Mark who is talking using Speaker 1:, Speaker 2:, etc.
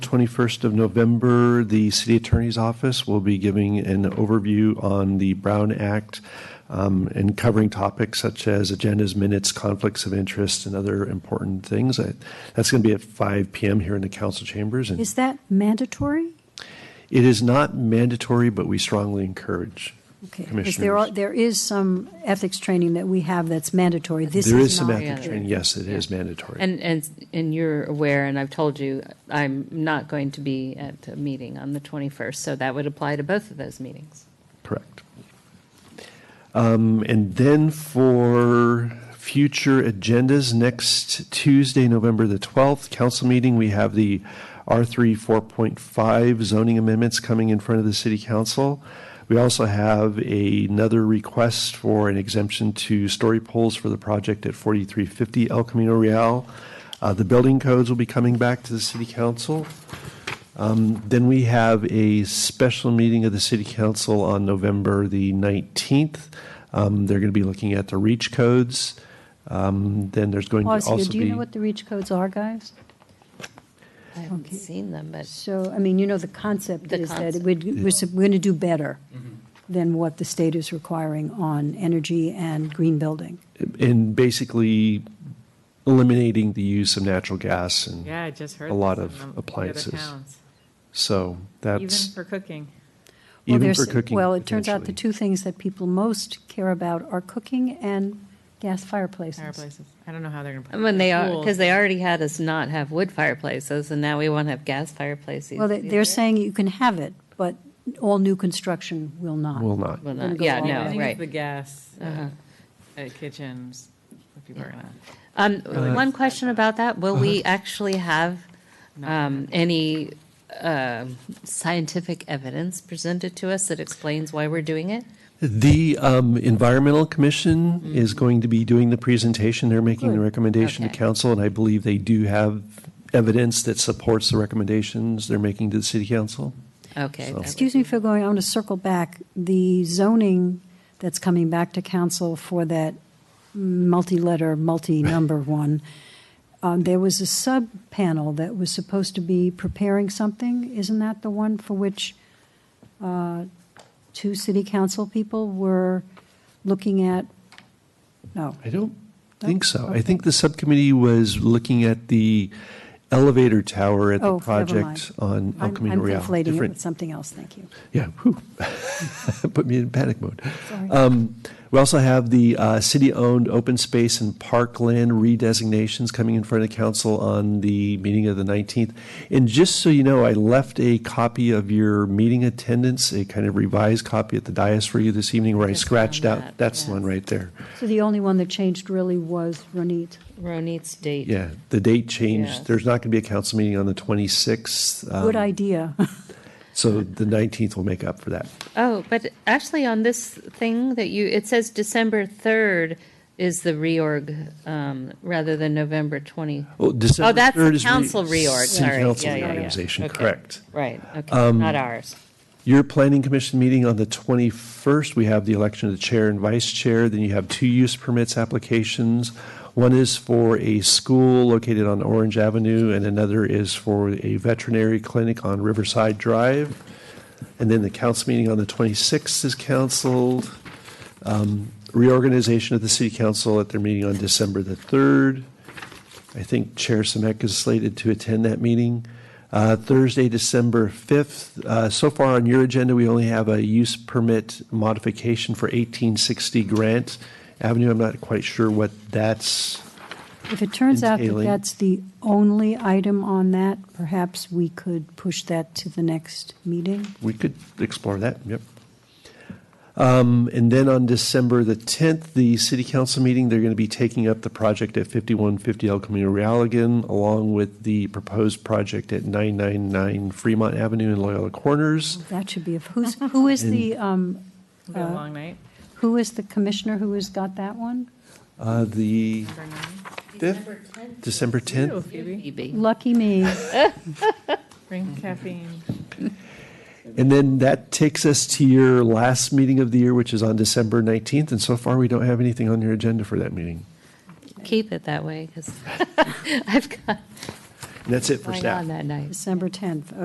Speaker 1: 21st of November, the city attorney's office will be giving an overview on the Brown Act um, and covering topics such as agendas, minutes, conflicts of interest, and other important things. I- That's going to be at 5 PM here in the council chambers. and
Speaker 2: Is that mandatory?
Speaker 1: It is not mandatory, but we strongly encourage
Speaker 2: Okay, because there are,
Speaker 1: commissioners.
Speaker 2: there is some ethics training that we have that's mandatory. This is
Speaker 1: There
Speaker 2: not.
Speaker 1: is some
Speaker 3: Yeah.
Speaker 1: ethics training. Yes, it is mandatory.
Speaker 3: And, and, and you're aware, and I've told you, I'm not going to be at a meeting on the 21st, so that would apply to both of those meetings.
Speaker 1: Correct. Um, And then for future agendas, next Tuesday, November the 12th, council meeting, we have the R3 4.5 zoning amendments coming in front of the city council. We also have a- another request for an exemption to story poles for the project at 4350 El Camino Real. Uh, The building codes will be coming back to the city council. Then we have a special meeting of the city council on November the 19th. Um, They're going to be looking at the reach codes. Um, Then there's going to
Speaker 2: Pause
Speaker 1: also be.
Speaker 2: here. Do you know what the reach codes are, guys?
Speaker 3: I haven't
Speaker 2: Okay.
Speaker 3: seen them, but
Speaker 2: So, I mean, you know, the concept Mm-hmm.
Speaker 3: The
Speaker 2: is that
Speaker 3: concept.
Speaker 2: we'd- we're, sup- we're going to do better than what the state is requiring on energy and green building.
Speaker 1: And basically eliminating the use of natural gas. And
Speaker 4: Yeah, I just heard.
Speaker 1: A
Speaker 4: this
Speaker 1: lot
Speaker 4: in
Speaker 1: of
Speaker 4: the- the other
Speaker 1: appliances.
Speaker 4: towns.
Speaker 1: so
Speaker 4: Even
Speaker 1: that's,
Speaker 4: for cooking.
Speaker 2: Well,
Speaker 1: even for
Speaker 2: there's-
Speaker 1: cooking.
Speaker 2: Well, it turns out the
Speaker 1: potentially.
Speaker 2: two things that people most care about are cooking and gas fireplaces.
Speaker 4: Fireplaces. I don't know how they're gonna. put it
Speaker 3: when
Speaker 4: in
Speaker 3: they
Speaker 4: their
Speaker 3: are,
Speaker 4: pools.
Speaker 3: because they already had us not have wood fireplaces, and now we won't have gas fireplaces.
Speaker 2: Well, they- they're saying you can have it, but all new construction will not.
Speaker 1: Will not.
Speaker 3: Will
Speaker 2: Wouldn't
Speaker 3: not,
Speaker 2: go
Speaker 3: yeah,
Speaker 2: all the
Speaker 4: I
Speaker 3: no,
Speaker 4: think it's the
Speaker 3: right. Uh-huh.
Speaker 4: gas uh, at kitchens, if people are gonna.
Speaker 3: Um, one question about that, will we actually have, um, any, um, scientific evidence presented to us that explains why we're doing it?
Speaker 1: The um, Environmental Commission is going to be doing the presentation. They're making the
Speaker 2: Mm-hmm. Good.
Speaker 1: recommendation to
Speaker 3: Okay.
Speaker 1: council, and I believe they do have evidence that supports the recommendations they're making to the city council.
Speaker 3: Okay. that
Speaker 2: Excuse me for going, I want to circle back. The zoning that's coming back to council for that multi-letter, multi-number one, um, there was a sub-panel that was supposed to be preparing something. Isn't that the one for which uh, two city council people were looking at? No.
Speaker 1: I don't think so. I
Speaker 2: Okay.
Speaker 1: think the subcommittee was looking at the elevator tower at the
Speaker 2: Oh, never mind.
Speaker 1: project on El
Speaker 2: I'm-
Speaker 1: Camino Real.
Speaker 2: I'm conflating it
Speaker 1: Different-
Speaker 2: with something else, thank you.
Speaker 1: Yeah, whew. put me in panic mode.
Speaker 2: Sorry.
Speaker 1: Um, We also have the uh, city-owned open space and parkland redesignations coming in front of council on the meeting of the 19th. And just so you know, I left a copy of your meeting attendance, a kind of revised copy at the dais for you this evening where I
Speaker 3: Just
Speaker 1: scratched
Speaker 3: found
Speaker 1: out,
Speaker 3: that,
Speaker 1: that's the
Speaker 3: yes.
Speaker 1: one right there.
Speaker 2: So the only one that changed really was Ronit.
Speaker 3: Ronit's date.
Speaker 1: Yeah, the date
Speaker 3: Yes.
Speaker 1: changed. There's not going to be a council meeting on the 26th. um,
Speaker 2: Good idea.
Speaker 1: So the 19th will make up for that.
Speaker 3: Oh, but actually on this thing that you, it says December 3rd is the reorg, um, rather than November 20.
Speaker 1: Oh, December
Speaker 3: that's
Speaker 1: 3rd is re-
Speaker 3: council reorg,
Speaker 1: City
Speaker 3: sorry.
Speaker 1: council
Speaker 3: Yeah, yeah, yeah.
Speaker 1: reorganization,
Speaker 3: Okay.
Speaker 1: correct.
Speaker 3: Right,
Speaker 5: Um,
Speaker 3: okay, not ours.
Speaker 1: Your planning commission meeting on the 21st, we have the election of the chair and vice chair. Then you have two use permits applications. One is for a school located on Orange Avenue, and another is for a veterinary clinic on Riverside Drive. And then the council meeting on the 26th is canceled. Um, Reorganization of the city council at their meeting on December the 3rd. I think Chair Samek is slated to attend that meeting. Uh, Thursday, December 5th. Uh, So far on your agenda, we only have a use permit modification for 1860 Grant Avenue. I'm not quite sure what that's,
Speaker 2: If it turns out that
Speaker 1: entailing.
Speaker 2: that's the only item on that, perhaps we could push that to the next meeting.
Speaker 1: we could explore that, yep. Um, And then on December the 10th, the city council meeting, they're going to be taking up the project at 5150 El Camino Real again, along with the proposed project at 999 Fremont Avenue in Loyola Corners.
Speaker 2: That should be, of who's, who is the, um,
Speaker 4: We've got a long night.
Speaker 2: who is the commissioner who has got that one?
Speaker 1: Uh, The
Speaker 4: Number nine.
Speaker 1: 5th, December
Speaker 4: Ew,
Speaker 1: 10th.
Speaker 4: Phoebe.
Speaker 3: Phoebe.
Speaker 2: Lucky me.
Speaker 4: Bring caffeine.
Speaker 1: And then that takes us to your last meeting of the year, which is on December 19th. And so far, we don't have anything on your agenda for that meeting.
Speaker 3: Keep it that way, because I've got,
Speaker 5: that's it for
Speaker 1: going
Speaker 5: staff.
Speaker 1: on that night.
Speaker 3: December 10th.